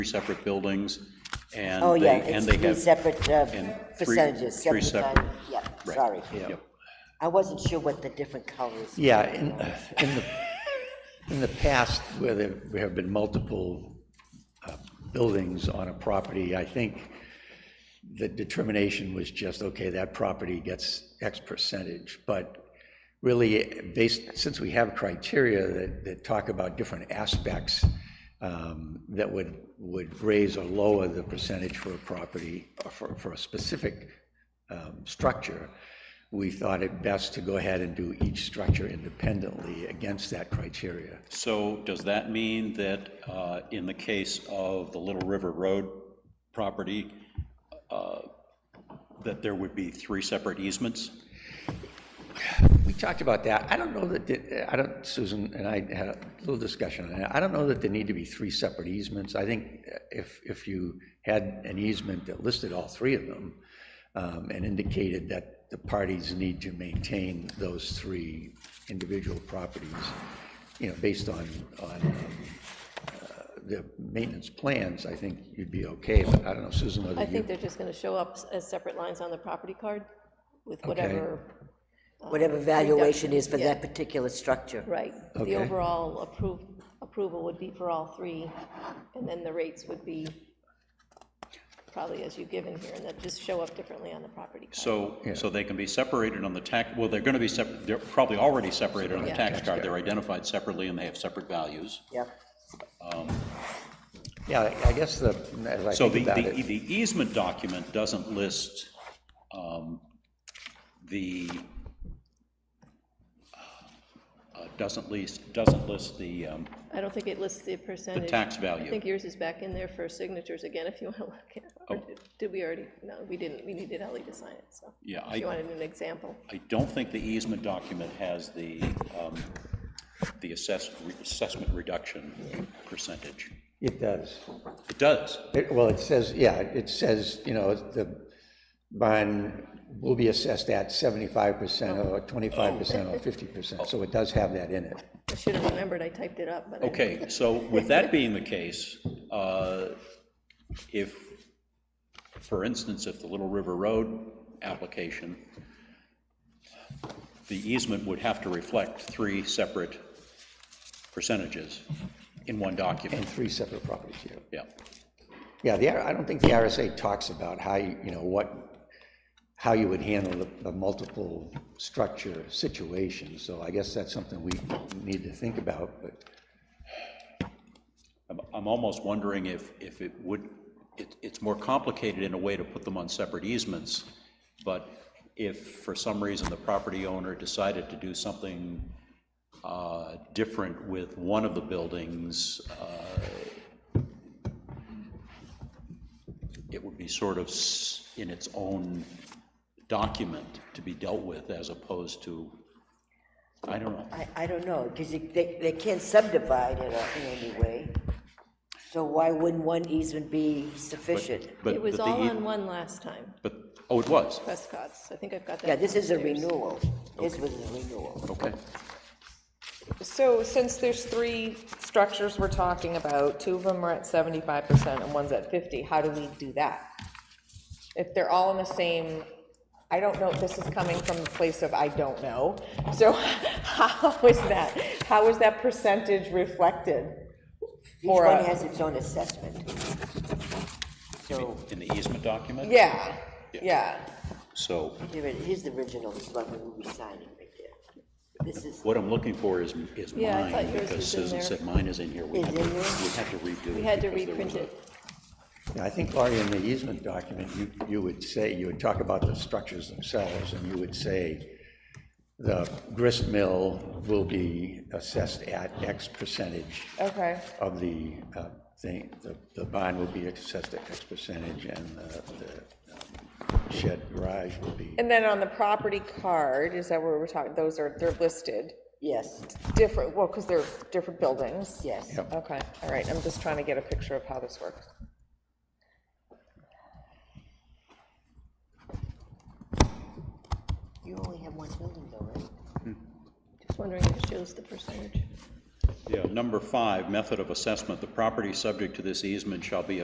three separate buildings, and Oh, they, yeah, and it's they three have. separate uh, and three- percentages. three 75 separate- Yeah, right, sorry. yep. I wasn't sure what the different colors. Yeah, in, in the, in the past, where there there have been multiple uh, buildings on a property, I think the determination was just, okay, that property gets X percentage. But really, based, since we have criteria that, that talk about different aspects um, that would, would raise or lower the percentage for a property, or for, for a specific um, structure, we thought it best to go ahead and do each structure independently against that criteria. So does that mean that uh, in the case of the Little River Road property, uh, that there would be three separate easements? We talked about that. I don't know that, the- I don't, Susan and I had a little discussion on that. I don't know that there need to be three separate easements. I think if, if you had an easement that listed all three of them um, and indicated that the parties need to maintain those three individual properties, you know, based on, on um, uh, the maintenance plans, I think you'd be okay. But I don't know, Susan, whether I you. think they're just going to show up as separate lines on the property card with whatever, Whatever valuation is for yeah. that particular structure. right. Okay. The overall approve, approval would be for all three, and then the rates would be probably as you give in here, and that just show up differently on the property card. So, so they can be separated on the tax, well, they're going to be, sep- they're probably already separated on the Yeah. tax card. They're identified separately and they have separate values. Yep. Yeah, I- I guess the, as I So think the, about the it. the easement document doesn't list um, the, uh, doesn't list, doesn't list the, um, I don't think it lists the percentage. tax I value. think yours is back in there for signatures again, if you want to look at it. Oh. Or did- Did we already, no, we didn't, we needed Ellie to sign it, so. Yeah, I- She wanted an example. I don't think the easement document has the, um, the assess, assessment reduction percentage. It does. It does. It- Well, it says, yeah, it says, you know, the bond will be assessed at seventy-five percent or twenty-five percent or fifty percent, so it does have that in it. I should have remembered, I typed it up, but I Okay, so with that being the case, uh, if, for instance, if the Little River Road application, the easement would have to reflect three separate percentages in one document. And three separate properties, yeah. Yeah, Yeah, the, R- I don't think the RSA talks about how, you you know, what, how you would handle the, the multiple structure situation, so I guess that's something we need to think about, but, I'm, I'm almost wondering if, if it would, it, it's more complicated in a way to put them on separate easements, but if for some reason the property owner decided to do something uh, different with one of the buildings, uh, it would be sort of s- in its own document to be dealt with as opposed to, I don't know. I, I don't know, because they, they can't subdivide it in any way. So why wouldn't one easement be sufficient? But- It was but the all e- on one last time, But, oh, it was, Prescott's. I think I've got that. Yeah, this is a downstairs. renewal. This was a renewal. okay. So since there's three structures we're talking about, two of them are at seventy-five percent and one's at fifty, how do we do that? If they're all in the same, I don't know, this is coming from the place of I don't know. So how is that, how is that percentage reflected? Each For one uh, a- has its own assessment. So, In the easement document? Yeah, yeah. So here it, here's the original, this is what we will be signing right there. This is, what I'm looking for is, is Yeah, I thought mine, yours because was in Susan there. said mine is in here. We Is had to in there? we had to redo it. We had to because there was reprint a- it. yeah, I think, Laurie, in the easement document, you, you would say, you would talk about the structures themselves, and you would say, the grist mill will be assessed at X percentage Okay, of the uh, thing, the, the bond will be assessed at X percentage, and the the, um, shed garage will be, and then on the property card, is that where we're talking, those are, they're listed yes, different, well, because they're different buildings. yes. Yep. Okay, all right, I'm just trying to get a picture of how this works. You only have one building though, right? Just wondering if it shows the percentage. Yeah, number five, method of assessment, the property subject to this easement shall be